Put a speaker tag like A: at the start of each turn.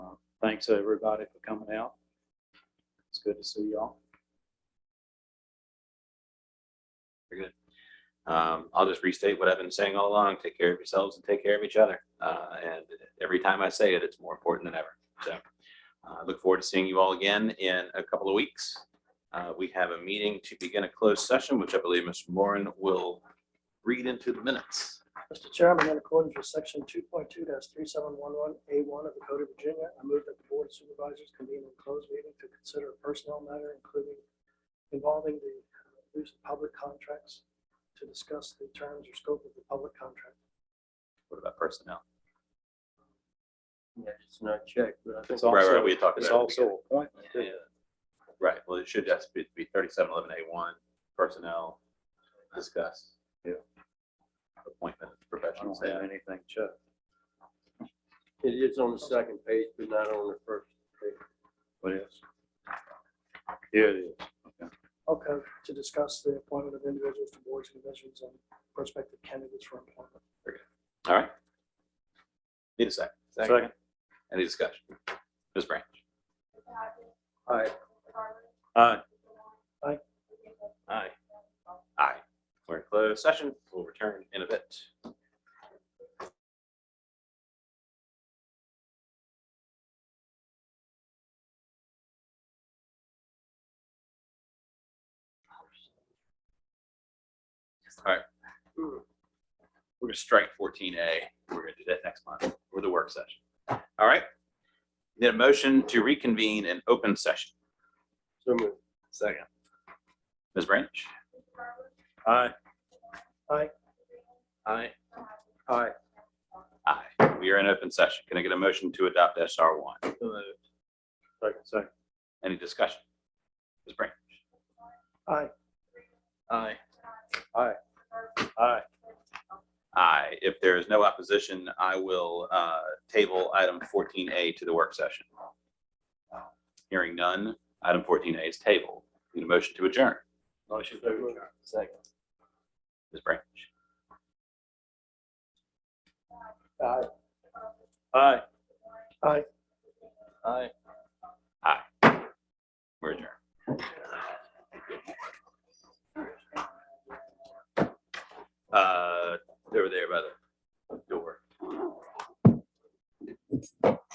A: thanks everybody for coming out. It's good to see y'all.
B: Um, I'll just restate what I've been saying all along. Take care of yourselves and take care of each other. Uh, and every time I say it, it's more important than ever. So uh, I look forward to seeing you all again in a couple of weeks. Uh, we have a meeting to begin a closed session, which I believe Mr. Moran will read into the minutes.
C: Mr. Chairman, in accordance with section two point two three seven one one A one of the Code of Virginia, I move that the Board of Supervisors convene a closed meeting to consider a personnel matter including involving the uh, use of public contracts to discuss the terms or scope of the public contract.
B: What about personnel?
D: Yeah, it's not checked, but I think
A: It's
B: Right, right,
A: also,
B: we had talked
A: it's
B: about it.
A: also appointment. too.
B: Yeah. Right, well, it should just be thirty-seven eleven A one, personnel, discuss.
A: Yeah.
B: Appointment,
A: I
B: professional
A: don't have anything, Chuck.
D: it is on the second page, but not on the first.
A: What else? Here it is.
C: Okay, to discuss the appointment of individuals to boards and divisions and prospective candidates for employment.
B: All right. Need a second.
A: Second.
B: Any discussion? Ms. Branch?
D: All right,
A: Aye.
C: Aye.
A: Aye.
B: Aye. We're in closed session. We'll return in a bit. All right. We're gonna strike fourteen A. We're gonna do that next month with the work session. All right. Need a motion to reconvene an open session.
D: so moved.
B: Second. Ms. Branch?
A: Aye.
B: Aye.
D: All right,
B: Aye. We are in open session. Can I get a motion to adopt SR one?
D: so moved.
A: Second, second.
B: Any discussion? Ms. Branch?
C: Aye.
D: Aye.
A: Aye.
B: Aye. If there is no opposition, I will uh, table item fourteen A to the work session. Hearing none, item fourteen A is tabled. Need a motion to adjourn.
A: Motion to adjourn.
D: Second.
B: Ms. Branch?
D: Aye.
A: Aye.
D: Aye.
B: Uh,